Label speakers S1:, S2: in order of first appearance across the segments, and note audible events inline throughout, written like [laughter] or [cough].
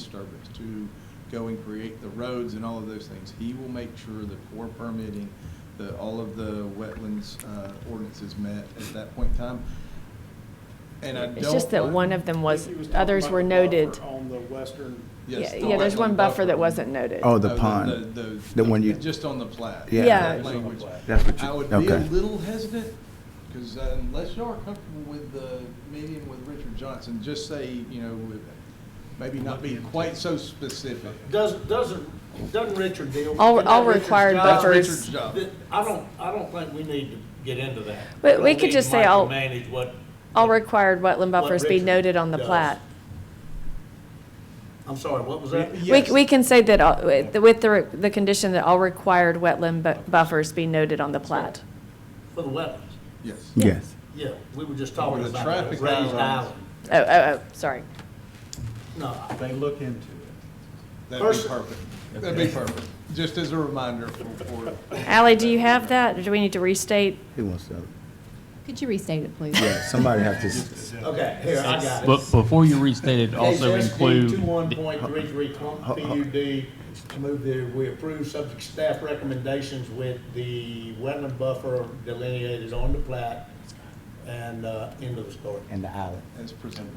S1: disturbance to go and create the roads and all of those things. He will make sure that for permitting, that all of the wetlands uh, ordinance is met at that point in time. And I don't.
S2: It's just that
S1: like-
S2: one of them was,
S3: I think he was talking
S2: others
S3: about
S2: were
S3: the
S2: noted.
S3: buffer On the western,
S1: Yes,
S2: Yeah,
S1: the
S2: yeah, there's
S1: wetland
S2: one buffer that
S1: buffer.
S2: wasn't noted.
S4: Oh, the
S1: No,
S4: pond.
S1: The
S4: The one you-
S1: Just on the plat.
S4: Yeah.
S2: Yeah.
S1: that language.
S4: That's what you-
S1: I would be a
S4: okay.
S1: little hesitant, because unless y'all are comfortable with the meeting with Richard Johnson, just say, you know, with- maybe not be quite so specific.
S5: Does, doesn't, doesn't Richard deal? with-
S2: All, all
S5: Richard's
S2: required
S5: job-
S1: That's Richard's
S2: buffers.
S1: job.
S5: Th- I don't, I don't think we need to get into that.
S2: But we
S5: don't
S2: could
S5: need
S2: just
S5: to
S2: say all-
S5: micromanage what.
S2: All
S5: what-
S2: required wetland
S5: what
S2: buffers be
S5: Richard
S2: noted on the
S5: does.
S2: plat.
S5: I'm sorry, what was that?
S2: We,
S1: Yes.
S2: we can say that, all- with the- with the, the condition that all required wetland bu- buffers be noted on the plat.
S5: For the wetlands.
S1: Yes.
S4: Yes.
S5: Yeah, we were just talking
S1: the
S5: about the
S1: traffic
S5: raised
S1: guidelines.
S5: island.
S2: Oh, oh, oh, sorry.
S5: No, I-
S3: they look into it.
S1: That'd be
S5: Person-
S1: perfect. That'd be perfect. Just as a reminder for, for,
S2: Ally, do you have that, or do we need to restate?
S4: Who wants to?
S6: Could you restate it, please?
S4: Yeah, somebody have to. s-
S5: okay, here, I got it.
S7: But before you restate it, also include.
S5: Two one point three three PUD, to move the, we approve subject staff recommendations with the wetland buffer delineated on the plat and, uh, end of the story.
S4: And the island.
S1: as presented.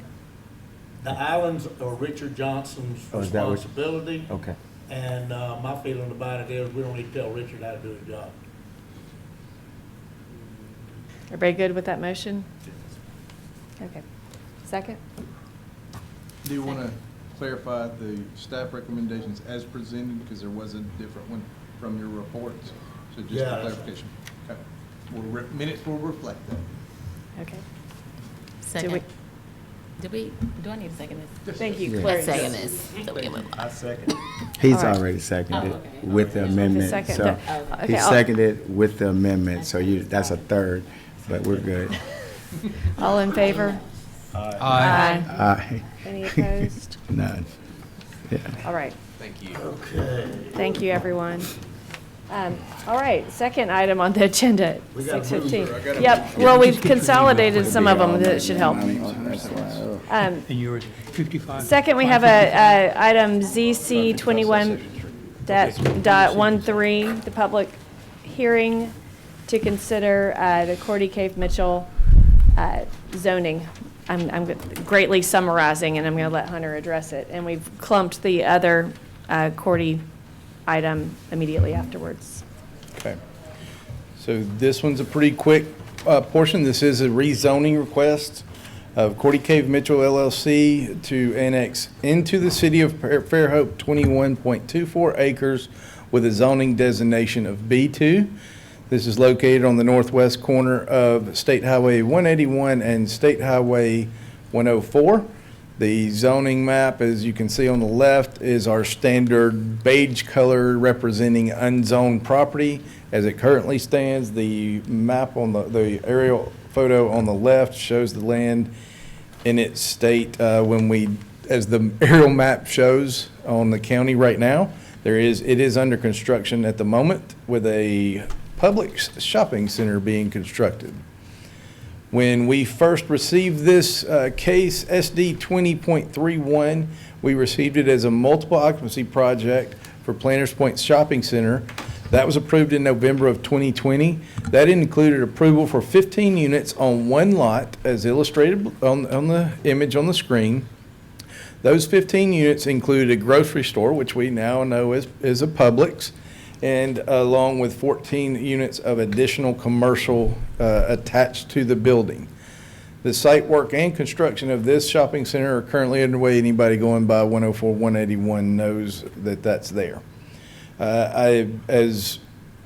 S5: The islands are Richard Johnson's
S4: Oh, is that what-
S5: responsibility.
S4: Okay.
S5: And, uh, my feeling about it is, we don't need to tell Richard how to do his job.
S2: Everybody good with that motion? Okay. Second?
S1: Do you want to clarify the staff recommendations as presented, because there was a different one from your reports? So just
S5: Yeah,
S1: a
S5: that's-
S1: clarification. Okay. We'll re- Minutes will reflect that.
S2: Okay. Do we-
S6: Second. Did we, do I need to second this?
S2: Thank you,
S4: Yeah.
S2: Clary.
S6: Let's second this, so we can move on.
S3: I second.
S4: He's
S2: All right.
S4: already seconded
S6: Oh, okay.
S4: with the
S6: Okay.
S4: amendment,
S2: Second,
S4: so.
S2: Oh, okay.
S4: He
S2: Okay, I'll-
S4: seconded with the amendment, so you, that's a third, but we're good.
S2: All in favor? Aye.
S4: Aye.
S2: Any opposed?
S4: [laughs] None. Yeah.
S2: All right.
S5: Okay.
S2: Thank you, everyone. Um, All right, second item on the agenda,
S5: We got a
S2: 6:15.
S5: mover. I got a
S2: Yep, well, we've consolidated some of them, that should help. Um,
S8: And you're at 55.
S2: Second, we have a, a item ZC 21 dot, dot 13, the public hearing to consider uh, the Cordy Cave Mitchell uh, zoning. I'm, I'm greatly summarizing, and I'm going to let Hunter address it. And we've clumped the other uh, Cordy item immediately afterwards.
S1: Okay. So this one's a pretty quick uh, portion. This is a rezoning request of Cordy Cave Mitchell LLC to annex into the city of Fair- Fairhope 21.24 acres with a zoning designation of B2. This is located on the northwest corner of State Highway 181 and State Highway 104. The zoning map, as you can see on the left, is our standard beige color representing unzoned property. As it currently stands, the map on the, the aerial photo on the left shows the land in its state uh, when we, as the [laughs] aerial map shows on the county right now. There is, it is under construction at the moment with a public s- shopping center being constructed. When we first received this uh, case, SD 20.31, we received it as a multiple occupancy project for Planters Point Shopping Center. That was approved in November of 2020. That included approval for 15 units on one lot, as illustrated on on the image on the screen. Those 15 units included a grocery store, which we now know is, is a Publix, and along with 14 units of additional commercial uh, attached to the building. The site work and construction of this shopping center are currently underway. Anybody going by 104, 181 knows that that's there. Uh, I, as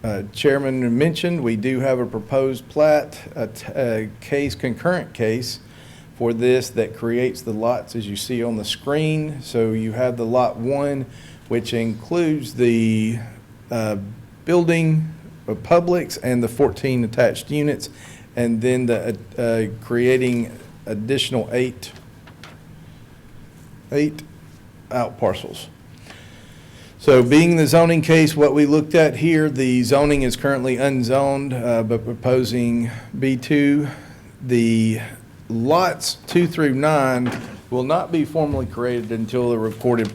S1: uh, Chairman mentioned, we do have a proposed plat, a t- a case, concurrent case for this that creates the lots as you see on the screen. So you have the Lot 1, which includes the uh, building of Publix and the 14 attached units, and then the, uh, uh, creating additional eight, eight out parcels. So being the zoning case, what we looked at here, the zoning is currently unzoned, uh, but proposing B2. The lots two through nine will not be formally created until a recorded